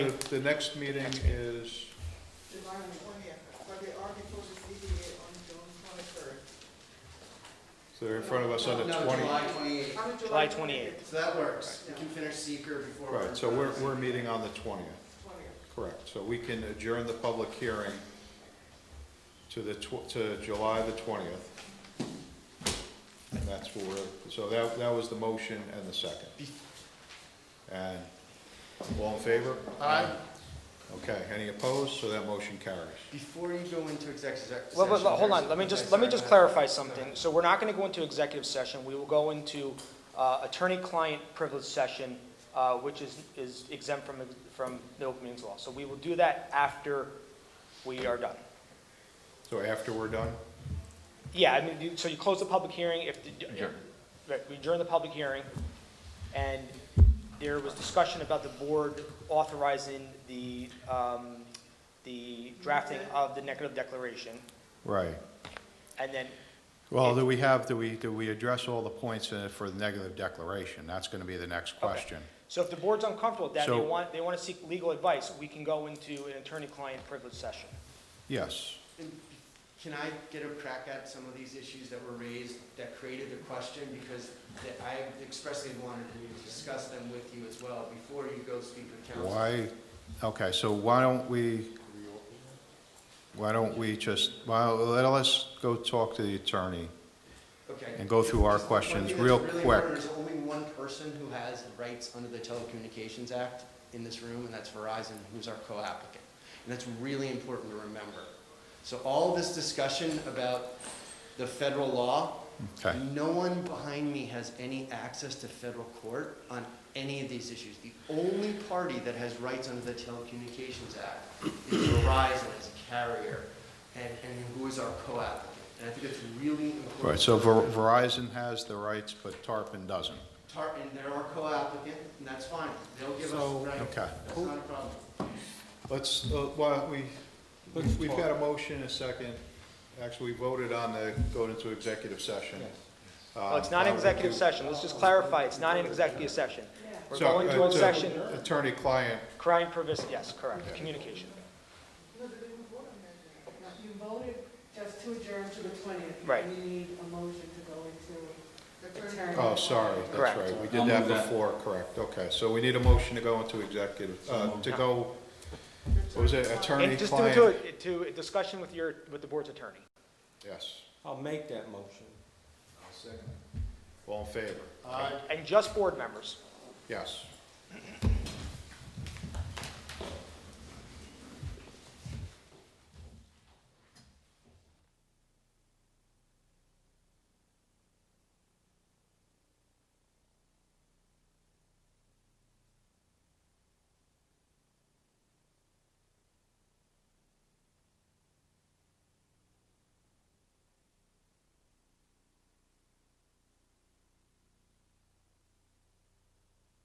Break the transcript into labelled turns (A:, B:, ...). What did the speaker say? A: The next meeting is,
B: July the twentieth, but they are before the ZBA on June twenty-third.
A: so they're in front of us on the
C: No,
A: twenty.
C: July twenty-eighth,
B: I mean,
D: July
C: so that works, we can finish seeker before. we're
A: Right, so
C: in
A: we're,
C: front of-
A: we're meeting on the twentieth,
B: Twentieth,
A: correct. So we can adjourn the public hearing to the tw- to July the twentieth. And that's for, so that, that was the motion and the second. And all in favor?
C: Aye.
A: Okay, any opposed? So that motion carries.
C: Before you go into executive se-
D: Well, but,
C: session,
D: but hold on,
C: there's-
D: let me
C: okay,
D: just, let me
C: sorry,
D: just
C: go ahead.
D: clarify something. So we're not gonna go into executive session, we will go into, uh, attorney-client privilege session, uh, which is, is exempt from, from the open meetings law. So we will do that after we are done.
A: So after we're done?
D: Yeah, I mean, you- so you close the public hearing, if, the- right, we adjourn the public hearing, and there was discussion about the board authorizing the, um, the drafting of the negative declaration,
A: Right.
D: and then
A: Well, do we have, do we, do we address all the points in it for the negative declaration? That's gonna be the next question.
D: So if the board's uncomfortable with that, they
A: So-
D: want, they want to seek legal advice, we can go into an attorney-client privilege session.
A: Yes.
C: And Can I get a crack at some of these issues that were raised that created the question? Because th- I expressly wanted to discuss them with you as well before you go speak with council.
A: Why, okay, so why don't we, why don't we just, well, let us go talk to the attorney
C: Okay.
A: and go through our
C: Just one
A: questions
C: thing that's
A: real
C: really
A: quick.
C: important, There's only one person who has rights under the Telecommunications Act in this room, and that's Verizon, who's our co-applicant. And that's really important to remember. So all this discussion about the federal law,
A: Okay,
C: no one behind me has any access to federal court on any of these issues. The only party that has rights under the Telecommunications Act is Verizon as a carrier, and, and who is our co-applicant. And I think it's really important.
A: All right, so Ver- Verizon has the rights, but Tarpon doesn't.
C: Tar- and they're our co-applicant, and that's fine, they'll give
A: So-
C: us, right,
A: Okay.
C: that's not a problem.
A: Let's, uh, well, we, we've got a motion, a second. Actually, we voted on the, going into executive session. Uh,
D: Well, it's not an executive session, let's just clarify, it's not an executive session. We're going to a session,
A: uh, Attorney-client,
D: crime privilege, yes, correct, communication.
E: You voted just to adjourn to the twentieth.
D: Right.
E: We need a motion to go into
B: the thirtieth.
E: attorney.
A: oh, sorry, that's
D: Correct.
A: right. We
F: I'll
A: did that
F: move that.
A: before, correct. Okay, so we need a motion to go into executive, uh, to go, what was it,
D: And just do it to,
A: attorney-client?
D: a- to a discussion with your, with the board's attorney.
A: Yes.
F: I'll make that motion.
A: All in favor?
D: And just board members.
A: Yes.